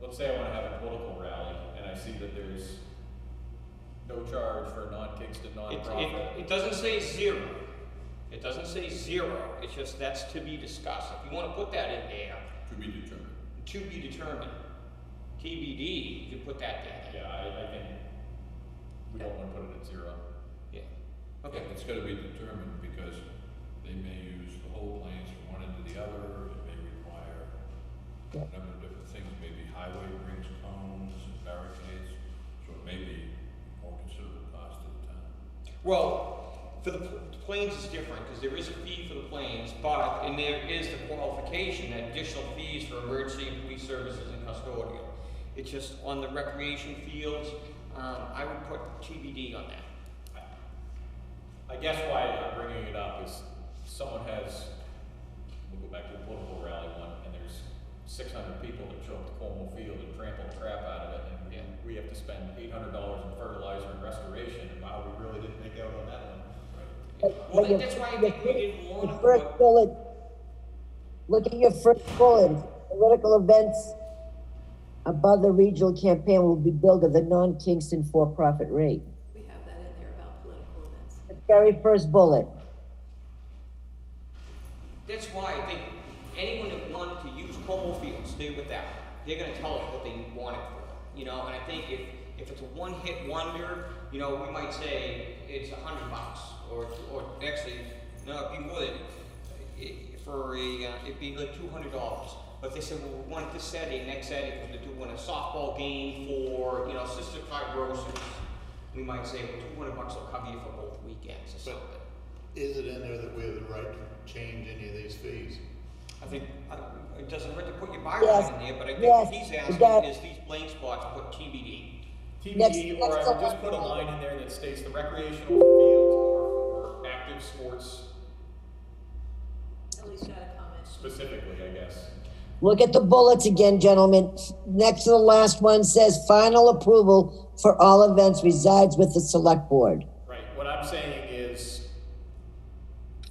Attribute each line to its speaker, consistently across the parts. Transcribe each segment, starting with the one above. Speaker 1: let's say I wanna have a political rally, and I see that there's no charge for a non-Kingston
Speaker 2: It,
Speaker 1: nonprofit.
Speaker 2: it, it doesn't say zero. It doesn't say zero, it's just that's to be discussed. If you wanna put that in there,
Speaker 1: To be determined.
Speaker 2: to be determined, TBD, you can put that there.
Speaker 1: Yeah, I, I think we don't wanna put it at zero.
Speaker 2: Yeah.
Speaker 3: Okay,
Speaker 2: Okay,
Speaker 3: it's gotta be determined because they may use the whole planes from one end to the other, it may require a number of different things, maybe highway rings, cones, and barricades, so it may be more considerable cost to the town.
Speaker 2: well, for the pl- the planes is different, cause there is a fee for the planes, but, and there is the qualification, that additional fees for emergency and police services and custodial. It's just on the recreation fields, um, I would put TBD on that.
Speaker 1: I guess why I'm bringing it up is someone has, we'll go back to the political rally one, and there's six hundred people that show up to Cuomo Field and trample the crap out of it, and
Speaker 2: Yeah.
Speaker 1: we, we have to spend eight hundred dollars in fertilizer and restoration, and wow, we really didn't make out on that one.
Speaker 2: Well, that- that's why I think we didn't
Speaker 4: The
Speaker 2: wanna
Speaker 4: first
Speaker 2: put,
Speaker 4: bullet, look at your first bullet, political events above the regional campaign will be billed at the non-Kingston for-profit rate.
Speaker 5: We have that in there about political events.
Speaker 4: The very first bullet,
Speaker 2: that's why I think anyone that wanted to use Como Field, stay with that. They're gonna tell us what they want it for, you know, and I think if, if it's a one-hit wonder, you know, we might say it's a hundred bucks, or, or actually, no, it'd be more than, i- for a, uh, it'd be like two hundred dollars. But they said, well, we want it this Saturday, next Saturday, we're gonna do one, a softball game for, you know, cystic fibrosis. We might say, well, two hundred bucks will cover you for both weekends or something.
Speaker 6: Is it in there that we have the right to change any of these fees?
Speaker 2: I think, I don't- it doesn't hurt to put your bylaws
Speaker 4: Yes,
Speaker 2: in there, but I think what
Speaker 4: yes,
Speaker 2: he's
Speaker 4: yes.
Speaker 2: asking is these blank spots, put TBD.
Speaker 1: TBD,
Speaker 4: Next-
Speaker 1: or I
Speaker 4: next
Speaker 1: would just
Speaker 4: up.
Speaker 1: put a line in there that states the recreational fields or, or active sports
Speaker 5: Ellie's got a comment.
Speaker 1: specifically, I guess.
Speaker 4: look at the bullets again, gentlemen. Next to the last one says final approval for all events resides with the select board.
Speaker 1: Right, what I'm saying is,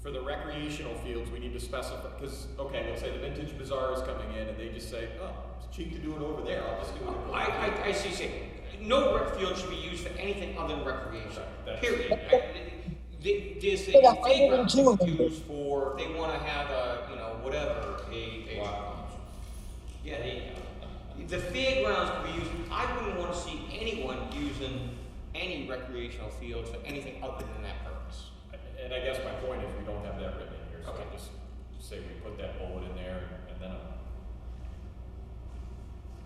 Speaker 1: for the recreational fields, we need to specify, because, okay, let's say the Vintage Bazaar is coming in and they just say, oh, it's cheap to do it over there, I'll just do it. over
Speaker 2: I,
Speaker 1: there."
Speaker 2: I, I see, see, no rec field should be used for anything other than recreation,
Speaker 1: That's-
Speaker 2: period. I- the- There's a
Speaker 4: Wait, I didn't
Speaker 2: playground they
Speaker 4: do
Speaker 2: could
Speaker 4: it.
Speaker 2: use for, if they wanna have a, you know, whatever, a, a. Yeah, they, the fairgrounds could be used, I wouldn't wanna see anyone using any recreational fields for anything other than that purpose.
Speaker 1: And I guess my point is, we don't have that written in here, so
Speaker 2: Okay.
Speaker 1: I just say we put that bullet in there, and then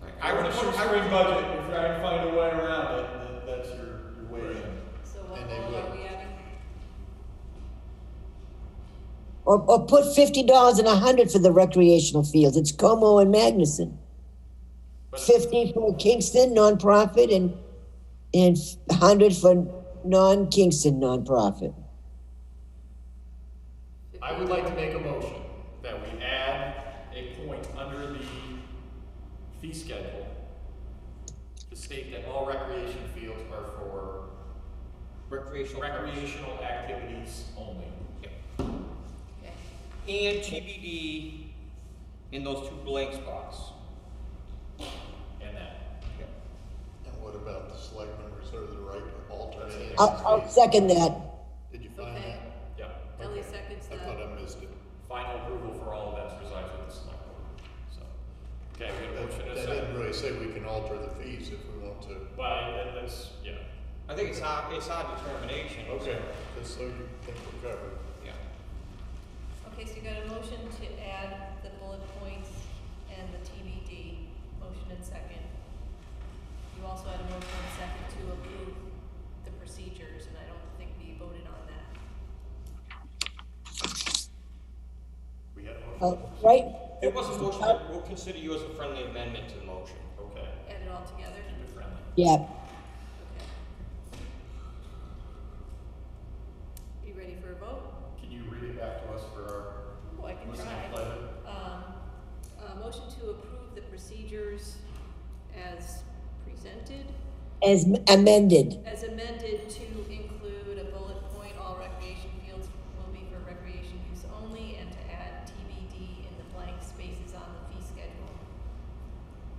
Speaker 1: I'm.
Speaker 2: Like, I would,
Speaker 1: If it's a
Speaker 2: I would
Speaker 1: shoestring budget, if I can find a way around it, then that's your, your way in.
Speaker 5: So uh, what
Speaker 6: And they
Speaker 5: role are
Speaker 6: will.
Speaker 5: we adding?
Speaker 4: Or, or put fifty dollars and a hundred for the recreational fields, it's Como and Magnuson.
Speaker 1: But-
Speaker 4: fifty for Kingston nonprofit and and hundred for non-Kingston nonprofit.
Speaker 1: I would like to make a motion that we add a point under the fee schedule to state that all recreation fields are for
Speaker 2: recreational.
Speaker 1: recreational activities only.
Speaker 2: Yeah.
Speaker 5: Okay.
Speaker 2: And TBD in those two blank spots.
Speaker 1: And that,
Speaker 6: And what about the selectmen reserve the right to alter any of these fees?
Speaker 4: I'll, I'll second that.
Speaker 6: Did you find
Speaker 5: Okay.
Speaker 6: that?
Speaker 1: yeah.
Speaker 5: Ellie
Speaker 6: Okay.
Speaker 5: seconds
Speaker 6: I thought
Speaker 5: that.
Speaker 6: I missed it.
Speaker 1: Final approval for all events resides with the select board, so. Okay, we got a motion and a
Speaker 6: That that didn't
Speaker 1: second.
Speaker 6: really say we can alter the fees if we want to.
Speaker 1: By, that- that's, yeah.
Speaker 2: I think it's our, it's our determination.
Speaker 6: Okay, just so you think we're covered.
Speaker 2: Yeah.
Speaker 5: Okay, so you got a motion to add the bullet points and the TBD, motion and second. You also had a motion and second to approve the procedures, and I don't think we voted on that.
Speaker 1: We had a
Speaker 4: Uh,
Speaker 1: motion,
Speaker 4: right?
Speaker 2: It was a motion, but we'll consider you as a friendly amendment to the motion.
Speaker 1: okay,
Speaker 5: Add it all together?
Speaker 1: keep it friendly.
Speaker 4: Yeah.
Speaker 5: Okay. You ready for a vote?
Speaker 1: Can you read it back to us for
Speaker 5: Oh, I
Speaker 1: our
Speaker 5: can
Speaker 1: listening
Speaker 5: try.
Speaker 1: pleasure?
Speaker 5: Um, uh, motion to approve the procedures as presented,
Speaker 4: As amended.
Speaker 5: as amended to